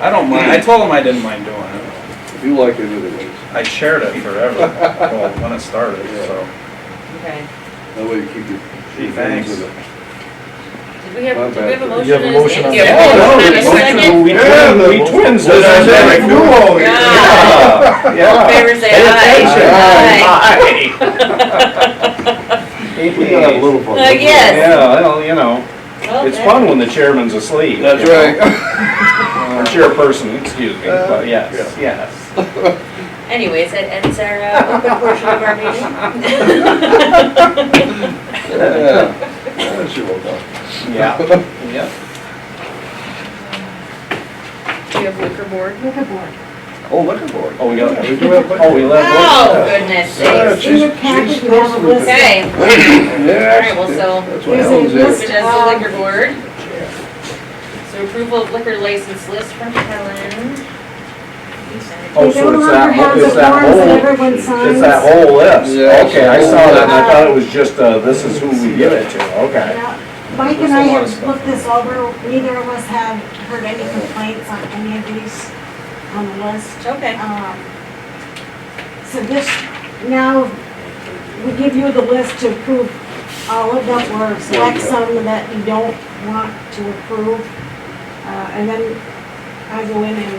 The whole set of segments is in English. I don't mind, I Hmm. told him I didn't mind doing it. If you like it anyways, I shared it forever, well, when it started, so. Okay. that way you keep your. Gee, your hands thanks. in it. Did we have, did we have a You have a motion motion? on and a the- We Oh, Yeah, second? Yeah, and a second? Yeah, motion, twin- we the- twins. Well, that's that's it. Duo here. Yeah. All in Yeah. favor say aye. We can have a little fun. Uh, yes. Yeah, well, you know, Well, it's there- fun when the chairman's asleep. That's right. Or chairperson, excuse me, but yes, yes. Anyways, that ends our uh, open portion of our meeting. Yeah. That's your old dog. Yeah, yeah. Do you have liquor board? Oh, liquor board. Oh, we got, We do have liquor. oh, we left. Oh, goodness Yeah, sakes. she's- In your packet, she's you have a supposed to be- list. Okay, Yeah. All right, well, so That's what there's a happens list. there. moving as the liquor board. So approval of liquor license list from Helen. Oh, They so no it's longer that, have the it's that forms that whole, everyone signs. it's that whole list. Yeah. Okay, I saw that and I thought it was just, uh, this is who we give it to, okay. Yeah. Mike There's and a I lot of have stuff. looked this over, neither of us have heard any complaints on any of these on the list. Okay. Um, So this, now, we give you the list to approve all of them, or select some that you don't want to approve. Uh, And then I go in and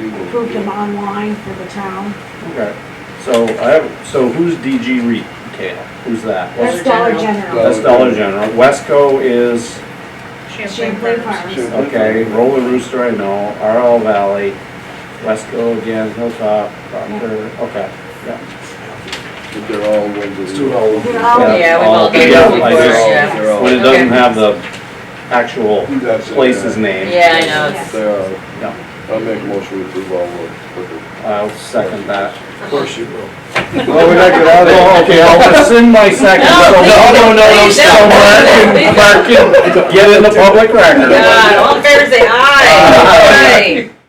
You will- approve them online for the town. Okay. So I have, so who's DG Re? Okay, who's that? Dollar That's Dollar General. General. That's Dollar General. Wesco is, Champlain Farms. Farms. Sure. okay, Roller Rooster, I know, RL Valley, Wesco again, Hilltop, Proctor, okay. But they're all ones that- They're all- Yeah. Yeah, we've all done Yeah, that before, I just- yeah. They're all- But it Okay. doesn't have the actual That's it, place's yeah. name. Yeah, I know. it's- They are. Yeah. I'll make a motion to approve all of them. I'll second that. Of course you will. Well, we knocked it out of Oh, okay, I'll rescind my second, No, so please no, no, no, no, don't. somewhere Please can, get in the public record. God, all in favor say aye. Aye.